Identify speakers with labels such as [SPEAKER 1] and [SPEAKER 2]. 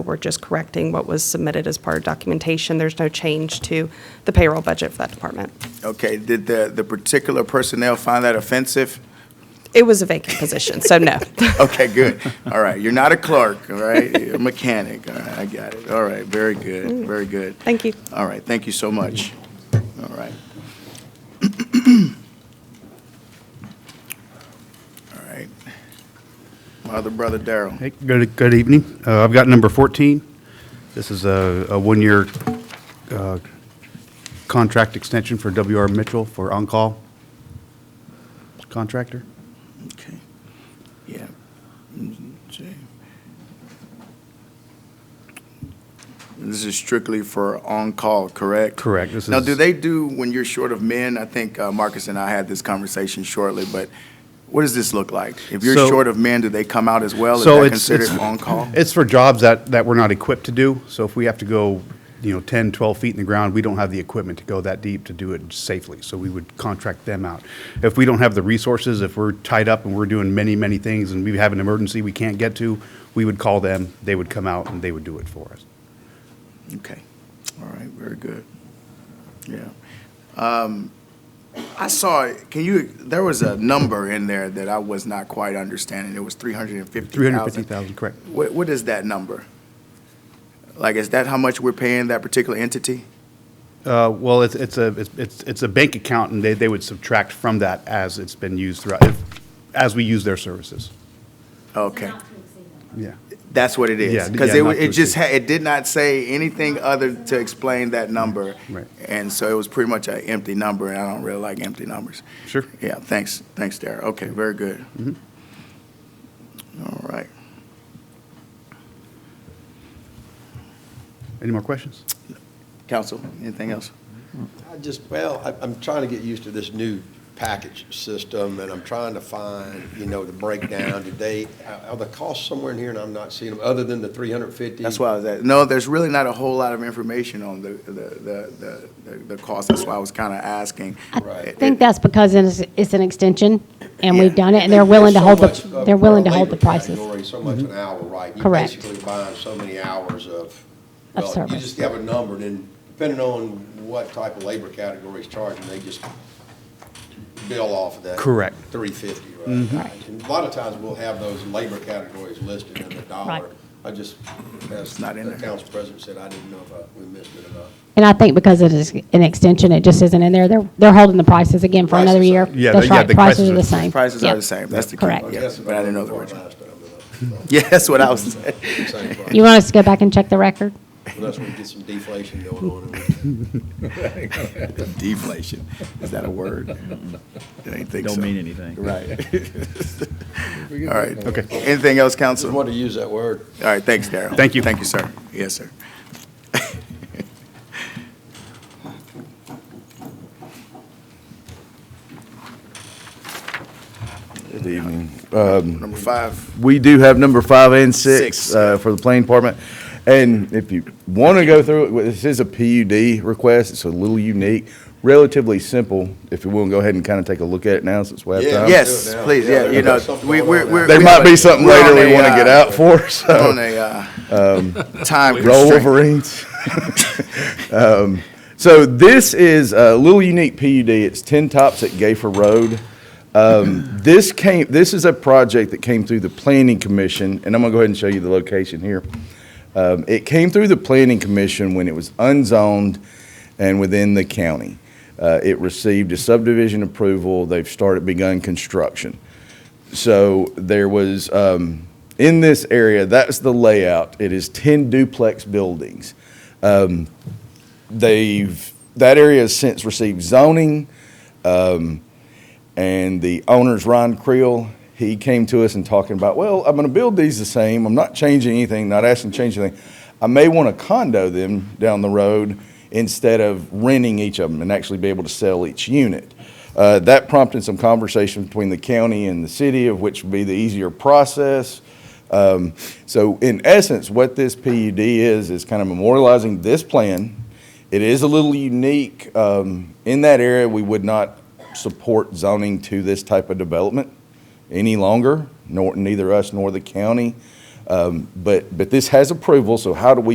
[SPEAKER 1] We're just correcting what was submitted as part of documentation. There's no change to the payroll budget for that department.
[SPEAKER 2] Okay, did the, the particular personnel find that offensive?
[SPEAKER 1] It was a vacant position, so no.
[SPEAKER 2] Okay, good. All right, you're not a clerk, all right? You're a mechanic, all right, I got it. All right, very good, very good.
[SPEAKER 1] Thank you.
[SPEAKER 2] All right, thank you so much. All right. All right. My other brother Daryl.
[SPEAKER 3] Hey, good, good evening. Uh, I've got number 14. This is a, a one-year, uh, contract extension for W.R. Mitchell for on-call contractor.
[SPEAKER 2] Okay. Yeah. Okay. This is strictly for on-call, correct?
[SPEAKER 3] Correct. This
[SPEAKER 2] Now, do
[SPEAKER 3] is-
[SPEAKER 2] they do, when you're short of men, I think uh, Marcus and I had this conversation shortly, but what does this look like? If you're
[SPEAKER 3] So-
[SPEAKER 2] short of men, do they come out as well? Oh, Is
[SPEAKER 3] So
[SPEAKER 2] that
[SPEAKER 3] it's-
[SPEAKER 2] considered
[SPEAKER 3] it's-
[SPEAKER 2] on-call?
[SPEAKER 3] It's for jobs that, that we're not equipped to do. So if we have to go, you know, 10, 12 feet in the ground, we don't have the equipment to go that deep to do it safely. So we would contract them out. If we don't have the resources, if we're tied up and we're doing many, many things and we have an emergency we can't get to, we would call them, they would come out and they would do it for us.
[SPEAKER 2] Okay, all right, very good. Yeah. Um, I saw, can you, there was a number in there that I was not quite understanding. It was 350,000.
[SPEAKER 3] 350,000, correct.
[SPEAKER 2] What, what is that number? Like, is that how much we're paying that particular entity?
[SPEAKER 3] Uh, Well, it's, it's a, it's- it's, it's a bank account, and they, they would subtract from that as it's been used throughout, if- as we use their services.
[SPEAKER 2] Okay,
[SPEAKER 3] Yeah.
[SPEAKER 2] that's what it
[SPEAKER 3] Yeah,
[SPEAKER 2] is. Because
[SPEAKER 3] yeah,
[SPEAKER 2] it,
[SPEAKER 3] not
[SPEAKER 2] wa- it
[SPEAKER 3] to
[SPEAKER 2] just, ha-
[SPEAKER 3] exceed.
[SPEAKER 2] it did not say anything other to explain that number.
[SPEAKER 3] Right.
[SPEAKER 2] And so it was pretty much an empty number, and I don't really like empty numbers.
[SPEAKER 3] Sure.
[SPEAKER 2] Yeah, thanks, thanks, Darrell. Okay, very good. All right.
[SPEAKER 3] Any more questions?
[SPEAKER 2] Council, anything else?
[SPEAKER 4] I just, well, I- I'm trying to get used to this new package system, and I'm trying to find, you know, the breakdown. Did they, are- are the costs somewhere in here, and I'm not seeing them, other than the 350?
[SPEAKER 2] That's why I was at, no, there's really not a whole lot of information on the, the, the, the, the cost. That's why I was kind of asking.
[SPEAKER 4] Right.
[SPEAKER 2] It-
[SPEAKER 5] I think that's because it's, it's an extension, and we've
[SPEAKER 2] Yeah.
[SPEAKER 5] done it, and they're willing to
[SPEAKER 4] There's
[SPEAKER 5] hold
[SPEAKER 4] so much,
[SPEAKER 5] the,
[SPEAKER 4] uh,
[SPEAKER 5] they're willing to
[SPEAKER 4] per
[SPEAKER 5] hold the
[SPEAKER 4] labor
[SPEAKER 5] prices. Mm-hmm.
[SPEAKER 4] category, So much an hour, right?
[SPEAKER 5] Correct.
[SPEAKER 4] You're basically buying so many hours of.
[SPEAKER 5] Of
[SPEAKER 4] well, You
[SPEAKER 5] service.
[SPEAKER 4] just have a number, and then depending on what type of labor category is charging, they just bill off of that.
[SPEAKER 3] Correct.
[SPEAKER 4] 350,
[SPEAKER 5] Mm-hmm.
[SPEAKER 4] right? And a lot of times, we'll have those labor categories listed in the
[SPEAKER 5] Right.
[SPEAKER 4] dollar. I just, as
[SPEAKER 2] not in
[SPEAKER 4] the
[SPEAKER 2] there.
[SPEAKER 4] council president said, I didn't know if I- we missed it or not.
[SPEAKER 5] And I think because it is an extension, it just isn't in there, they're, they're holding the prices again for another
[SPEAKER 4] Prices are-
[SPEAKER 5] year.
[SPEAKER 3] Yeah,
[SPEAKER 5] That's
[SPEAKER 3] they- yeah,
[SPEAKER 5] right,
[SPEAKER 3] the prices
[SPEAKER 5] prices are
[SPEAKER 3] are-
[SPEAKER 5] the same.
[SPEAKER 2] Prices
[SPEAKER 5] Yeah.
[SPEAKER 2] are the same, that's the key.
[SPEAKER 5] Correct.
[SPEAKER 2] Yeah,
[SPEAKER 4] I guess if
[SPEAKER 2] But I didn't know the
[SPEAKER 4] looked
[SPEAKER 2] original.
[SPEAKER 4] for it last time,
[SPEAKER 2] Yeah, that's what I was saying.
[SPEAKER 4] but, uh, same price.
[SPEAKER 5] You want us to go back and check the record?
[SPEAKER 4] Unless we get some deflation going on. and we-
[SPEAKER 2] Deflation, is that a word? I didn't think so.
[SPEAKER 6] Don't mean anything.
[SPEAKER 2] Right. All right.
[SPEAKER 3] Okay.
[SPEAKER 2] Anything else, council?
[SPEAKER 4] Just
[SPEAKER 2] All
[SPEAKER 4] wanted to use that word.
[SPEAKER 2] right, thanks, Darrell.
[SPEAKER 3] Thank you.
[SPEAKER 2] Thank you, sir. Yes, sir.
[SPEAKER 7] Good evening.
[SPEAKER 2] Number five,
[SPEAKER 7] We do have number five and six
[SPEAKER 2] Six.
[SPEAKER 7] uh, for the planning department. And if you want to go through it, this is a PUD request. It's a little unique, relatively simple. If you will, go ahead and kind of take a look at it now since we have
[SPEAKER 4] Yeah.
[SPEAKER 7] time.
[SPEAKER 2] yes,
[SPEAKER 4] Do it now.
[SPEAKER 2] please, yeah,
[SPEAKER 4] Yeah,
[SPEAKER 2] you know,
[SPEAKER 4] there's something
[SPEAKER 2] we,
[SPEAKER 4] going
[SPEAKER 2] we're.
[SPEAKER 4] on
[SPEAKER 2] we're-
[SPEAKER 7] There
[SPEAKER 2] we
[SPEAKER 7] might
[SPEAKER 2] have a-
[SPEAKER 7] be something
[SPEAKER 2] we're
[SPEAKER 7] later
[SPEAKER 2] on
[SPEAKER 7] we
[SPEAKER 2] a,
[SPEAKER 7] want to
[SPEAKER 2] uh,
[SPEAKER 7] get out for, so
[SPEAKER 2] On a, uh, time
[SPEAKER 7] roll
[SPEAKER 2] constraint.
[SPEAKER 7] Wolverines. Um, So this is a little unique PUD. It's 10 Tops at Gayfer Road. Um, This came, this is a project that came through the Planning Commission, and I'm going to go ahead and show you the location here. Um, It came through the Planning Commission when it was unzoned and within the county. Uh, It received a subdivision approval. They've started, begun construction. So there was, um, in this area, that's the layout. It is 10 duplex buildings. Um, They've, that area has since received zoning. um, And the owner's Ron Creel, he came to us and talking about, well, I'm going to build these the same. I'm not changing anything, not asking to change anything. I may want to condo them down the road instead of renting each of them and actually be able to sell each unit. Uh, That prompted some conversation between the county and the city, of which would be the easier process. Um, So in essence, what this PUD is, is kind of memorializing this plan. It is a little unique. um, In that area, we would not support zoning to this type of development any longer, nor, neither us nor the county. Um, Um, But, but this has approval, so how do we